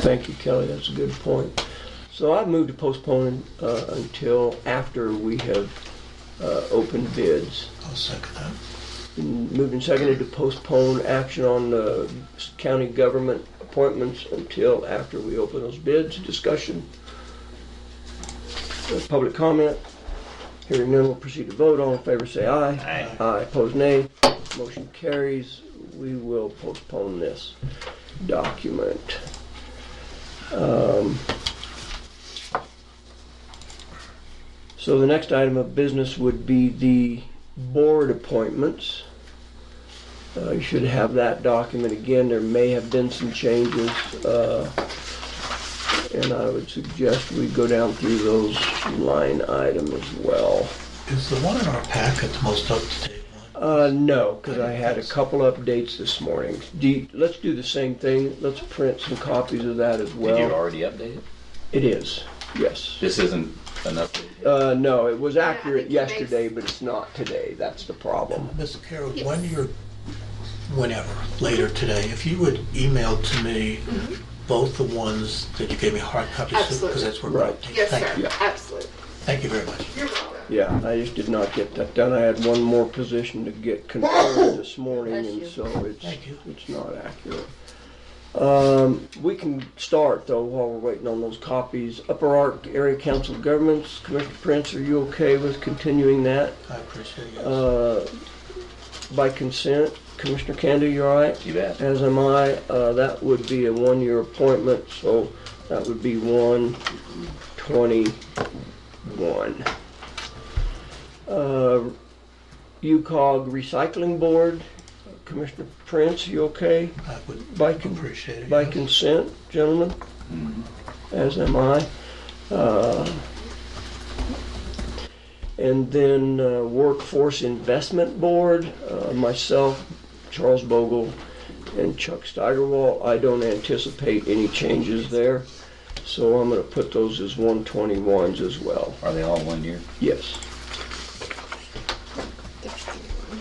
Thank you, Kelly, that's a good point. So I've moved to postpone uh, until after we have uh, opened bids. I'll second that. Been Moved and seconded to postpone action on the county government appointments until after we open those bids. Discussion? Uh, Public comment? Hearing none, we'll proceed to vote. All in favor, say aye. Aye. Aye, opposed nay. Motion carries. We will postpone this document. Um, So the next item of business would be the board appointments. Uh, You should have that document again. There may have been some changes. uh, And I would suggest we go down through those line item as well. Is the one in our packet the most up-to-date one? Uh, no, because I had a couple updates this morning. Do you- let's do the same thing. Let's print some copies of that as Did you well. already update it? It is, yes. This isn't an update. Uh, no, it was I accurate think it makes- yesterday, but it's not today. That's the problem. Ms. Carroll, Yes. when you're, whenever, later today, if you would email to me both the ones that you gave me hard copies of, because Mm-hmm. Absolutely. that's where we're Right. updating. Yes, Thank sir. you. Absolutely. Thank you very much. You're welcome. Yeah, I just did not get that done. I had one more position to get confirmed this morning, Bless and you. so it's, Thank you. it's not accurate. Um, we can start though while we're waiting on those copies. Upper Ark Area Council of Governments, Commissioner Prince, are you okay with continuing that? I appreciate it. yes. Uh, by consent, Commissioner Candy, you all right? You bet. As am I. Uh, That would be a one-year appointment, so that would be 1/21. Uh, UCOG Recycling Board, Commissioner Prince, you okay? I would by con- appreciate it. By yes. consent, gentlemen? As am I. Uh, And then uh, Workforce Investment Board, uh, myself, Charles Bogle, and Chuck Steigerwall. I don't anticipate any changes there, so I'm gonna put those as 121s as well. Are they all one year? Yes.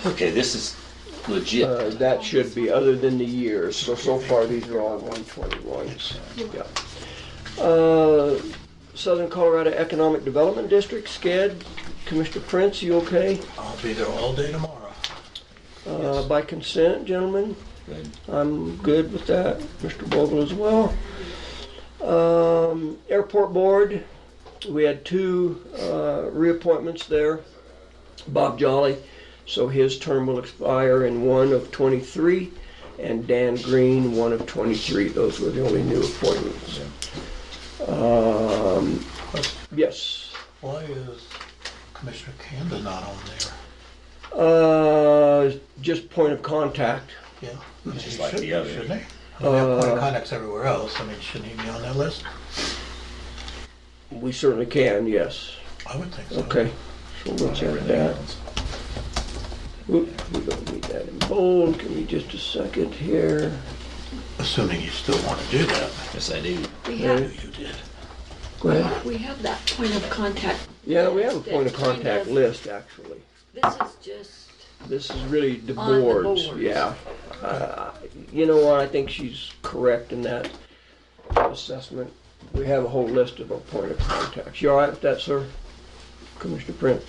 Okay, this is Uh, legit. That should be, other than the years, so, so far, these are all 121s. Yeah. Uh, Southern Colorado Economic Development District, SCED, Commissioner Prince, you okay? I'll be there all day tomorrow. Uh, By consent, gentlemen? Good. I'm good with that, Mr. Bogle as well. Um, Airport Board, we had two uh, reappointments there. Bob Jolly, so his term will expire in one of 23, and Dan Green, one of 23. Those were the only new appointments. Um, Yes. Why is Commissioner Canada not on there? Uh, Just point of contact. Yeah. I mean, just he like should the be, other. Shouldn't he? I mean, they have point Uh, of contacts everywhere else. I mean, shouldn't he be on that list? We certainly can, yes. I would think so. Okay. So we'll check Everything that. else. Oop, we don't need that in bold, give me just a second here. Assuming you still want to do that. Yes, I do. We I knew have, you did. Go ahead. we have that point of contact. Yeah, we have a point of contact list, actually. This is just, This is really the On the boards, boards. yeah. Uh, You know what, I think she's correct in that assessment. We have a whole list of our point of contacts. You all right with that, sir? Commissioner Prince?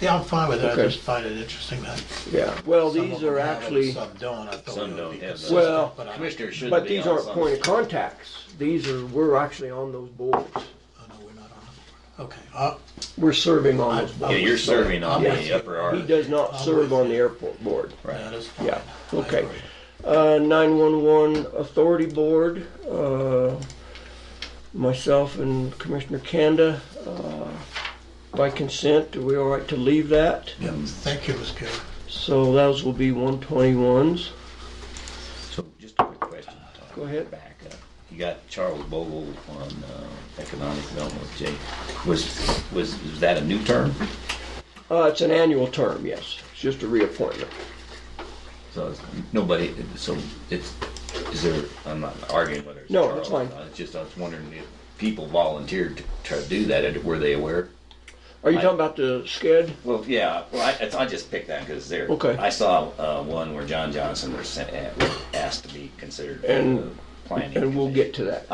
Yeah, I'm fine with it. I Okay. just find it interesting that. Yeah, well, some these of them are have it, actually, Some don't. I thought Some it would don't be have those. consistent, Well, but I- Commissioner should be on but these aren't some. point of contacts. These are, we're actually on those boards. Oh, no, we're not on the board. Okay, uh, We're serving on those boards. Yeah, you're serving on Yes. the upper He arc. does not serve on the airport board. that is fine. Yeah, I okay. agree. Uh, 911 Authority Board, uh, myself and Commissioner Kanda, uh, by consent, are we all right to leave that? Yeah, thank you, Ms. Carey. So those will be 121s. So just a quick question. Tom. Go ahead. Back up. You got Charles Bogle on uh, economic development with Jay. Was, was, is that a new term? Uh, It's an annual term, yes. It's just a reappointment. So it's- nobody, so it's, is there, I'm not arguing whether it's No, Charles that's or fine. not. It's just I was wondering if people volunteered to try to do that. Were they aware? Are you I- talking about the SCED? Well, yeah, well, I, it's- I just picked that because there. Okay. uh, I saw uh, one where John Johnson was sent, asked to be considered. And planning. and we'll commission. get to that.